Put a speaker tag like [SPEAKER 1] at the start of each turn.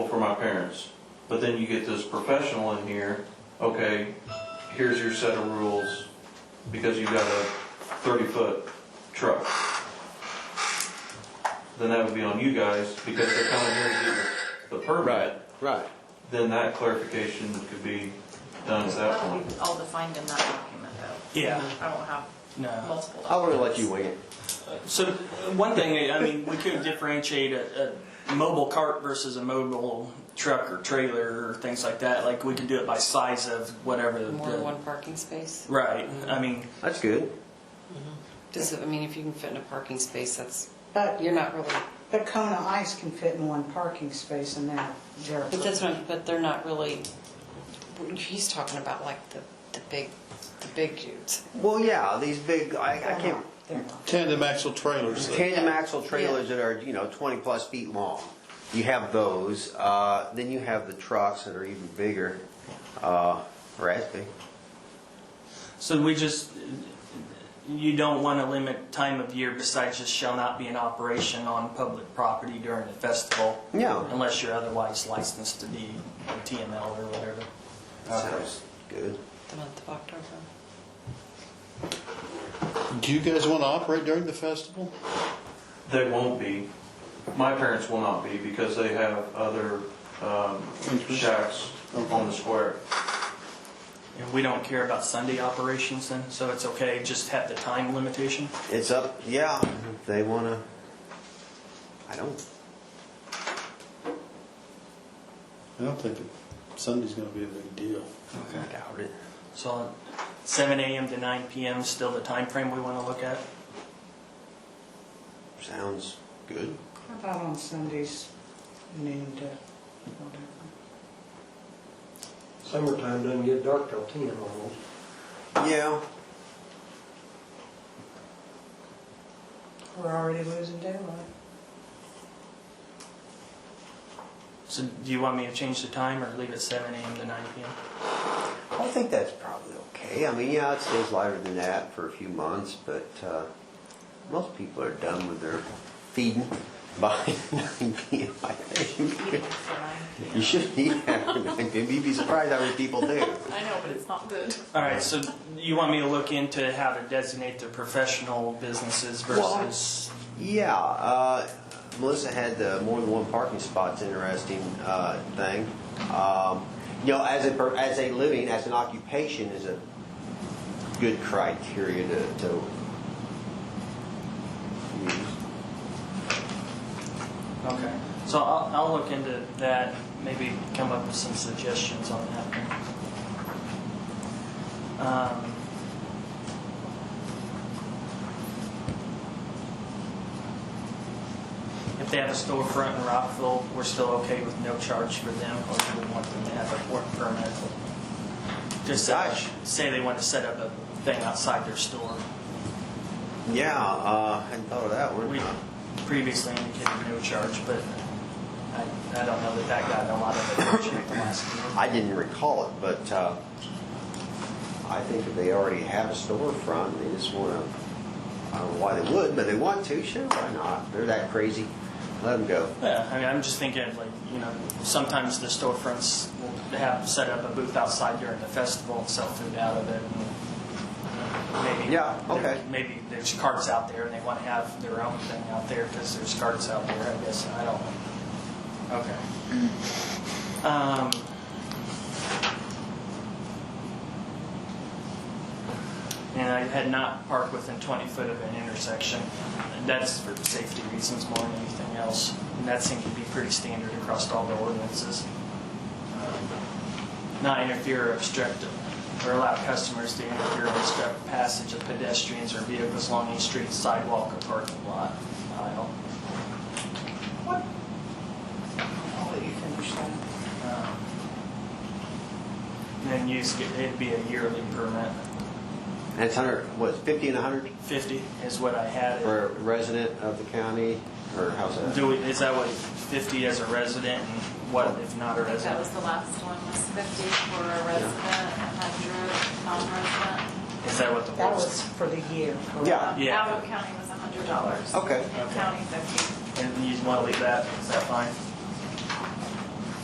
[SPEAKER 1] my parents. But then you get this professional in here, okay, here's your set of rules, because you got a thirty-foot truck. Then that would be on you guys, because they're coming here to get the the permit,
[SPEAKER 2] right.
[SPEAKER 1] then that clarification could be done at that
[SPEAKER 3] Well,
[SPEAKER 1] point.
[SPEAKER 3] we've all defined in that document though.
[SPEAKER 4] Yeah.
[SPEAKER 3] I don't have
[SPEAKER 4] No.
[SPEAKER 3] multiple.
[SPEAKER 2] I would have let
[SPEAKER 3] documents.
[SPEAKER 2] you wing it.
[SPEAKER 4] So uh, one thing, I mean, we could differentiate a, a mobile cart versus a mobile truck or trailer or things like that. Like we could do it by size of whatever. the-
[SPEAKER 5] More than one parking space?
[SPEAKER 4] Right. I mean,
[SPEAKER 2] That's good.
[SPEAKER 5] Does it, I mean, if you can fit in a parking space, that's,
[SPEAKER 6] But,
[SPEAKER 5] you're not really,
[SPEAKER 6] but Kona Ice can fit in one parking space and that, there.
[SPEAKER 5] but that's not, but they're not really, he's talking about like the, the big, the big dudes.
[SPEAKER 2] Well, yeah, these big, I, I can't,
[SPEAKER 6] They're not.
[SPEAKER 7] Tandem axle trailers. that-
[SPEAKER 2] tandem axle trailers that are, you know, twenty plus feet long. You have those, uh, then you have the trucks that are even bigger, uh, or as big.
[SPEAKER 4] so we just you don't want to limit time of year besides just shall not be in operation on public property during the festival
[SPEAKER 2] No.
[SPEAKER 4] unless you're otherwise licensed to be a TML or whatever.
[SPEAKER 2] Sounds good.
[SPEAKER 5] The month of October.
[SPEAKER 7] Do you guys want to operate during the festival?
[SPEAKER 1] They won't be, my parents will not be, because they have other, um, shacks on the square.
[SPEAKER 4] And we don't care about Sunday operations then, so it's okay, just have the time limitation?
[SPEAKER 2] It's up, yeah, if they wanna, I don't,
[SPEAKER 7] I don't think that Sunday's going to be a big deal.
[SPEAKER 2] I doubt it.
[SPEAKER 4] So seven AM to nine PM is still the time frame we want to look at?
[SPEAKER 2] Sounds good.
[SPEAKER 6] How about on Sundays, noon to whatever?
[SPEAKER 8] Summertime doesn't get dark till ten almost.
[SPEAKER 2] Yeah,
[SPEAKER 6] We're already losing daylight.
[SPEAKER 4] So do you want me to change the time or leave it seven AM to nine PM?
[SPEAKER 2] I think that's probably okay. I mean, yeah, it stays lighter than that for a few months, but uh, most people are done with their feeding by 9 p.m. I think. You shouldn't eat after 9 p.m. You'd be surprised how many people do.
[SPEAKER 3] I know, but it's not good.
[SPEAKER 4] All right, so you want me to look into how to designate the professional businesses versus,
[SPEAKER 2] Yeah, uh, Melissa had the more than one parking spots interesting uh, thing. Um, you know, as a per- as a living, as an occupation, is a good criteria to. to use.
[SPEAKER 4] okay. So I'll, I'll look into that, maybe come up with some suggestions on that. Um, If they have a storefront in Rockville, we're still okay with no charge for them, or do we want them to have a work permit? Just uh,
[SPEAKER 2] Gosh.
[SPEAKER 4] say they want to set up a thing outside their store.
[SPEAKER 2] Yeah, uh, hadn't thought of that one.
[SPEAKER 4] We previously indicated no charge, but I, I don't know that that got a lot of attention at the last meeting.
[SPEAKER 2] I didn't recall it, but uh, I think if they already have a storefront, they just want to. I don't know why they would, but they want to. Sure, why not? They're that crazy. Let them go.
[SPEAKER 4] Yeah, I mean, I'm just thinking like, you know, sometimes the storefronts will have set up a booth outside during the festival and sell food out of it. and Maybe.
[SPEAKER 2] Yeah, okay.
[SPEAKER 4] Maybe there's carts out there and they want to have their own thing out there because there's carts out there, I guess, I don't know. Okay. Um, and I had not parked within 20 foot of an intersection. And That's for safety reasons more than anything else. And that seemed to be pretty standard across all the ordinances. Um, Not interfere or obstruct, or allow customers to interfere or obstruct passage of pedestrians or vehicles along any street, sidewalk, or parking lot aisle.
[SPEAKER 6] I'll let you finish that.
[SPEAKER 4] Um, And then use, it'd be a yearly permit.
[SPEAKER 2] And it's hundred, what, fifty and a hundred
[SPEAKER 4] 50 is what I had. it.
[SPEAKER 2] for a resident of the county, or how's that?
[SPEAKER 4] Do we, is that what, 50 as a resident and what if not a
[SPEAKER 3] I think that
[SPEAKER 4] resident?
[SPEAKER 3] was the last one, was fifty for a resident, a hundred non-resident.
[SPEAKER 4] Is that what the
[SPEAKER 6] That
[SPEAKER 4] rules?
[SPEAKER 6] was for the year. correct?
[SPEAKER 2] Yeah.
[SPEAKER 4] Yeah.
[SPEAKER 3] Abbott County was a hundred dollars.
[SPEAKER 2] Okay.
[SPEAKER 3] County fifty.
[SPEAKER 4] And you want to leave that, is that fine?